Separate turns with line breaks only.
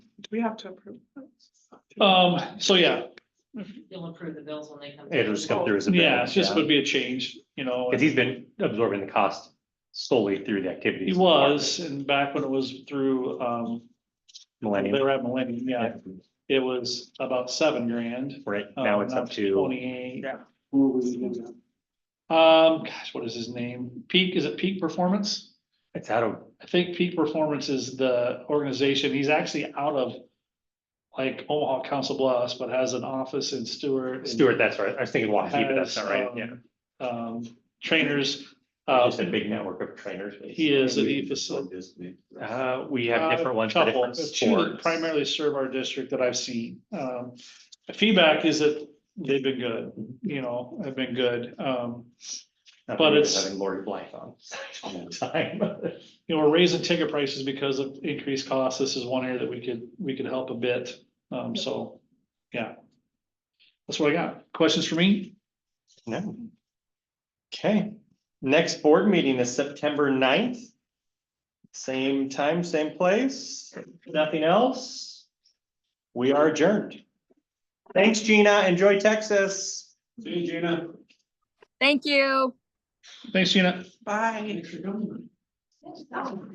we have to approve.
Um, so yeah,
You'll approve the bills when they come.
It'll just come through as a. bill,
yeah, it's just would be a change, you know.
Cause he's been absorbing the cost solely through the activities.
He was, and back when it was through, um, they
Millennium.
were at Millennium, yeah, it was about seven grand.
Right, now
um,
it's up to,
Twenty-eight.
Yeah.
Um, gosh, what is his name? Peak, is it Peak Performance?
it's out of,
I think Peak Performance is the organization, he's actually out of like Omaha Council Bluffs, but has an office in Stewart. and
Stewart, that's right, I was thinking Waukee, but that's not right,
has,
yeah.
um, Um, trainers,
It's
uh,
Just a big network of trainers.
he is, E a- he facil-
Uh, we have
uh,
different ones for
couple,
different
but two that
sports.
Primarily serve our district that I've seen, um, the feedback is that they've been good, you know, have been good, um.
Not that
but
we were
it's-
Having Lori Blythe on all the time.
you know, we're raising ticket prices because of increased costs. This is one area that we could, we could help a bit. Um, so, yeah. That's what I got. Questions for me?
No. Okay, next board meeting is September 9th. Same time, same place, nothing else. We are adjourned. Thanks, Gina. Enjoy Texas.
See you, Gina.
Thank you.
Thanks, Gina.
Bye.
Yes, that one.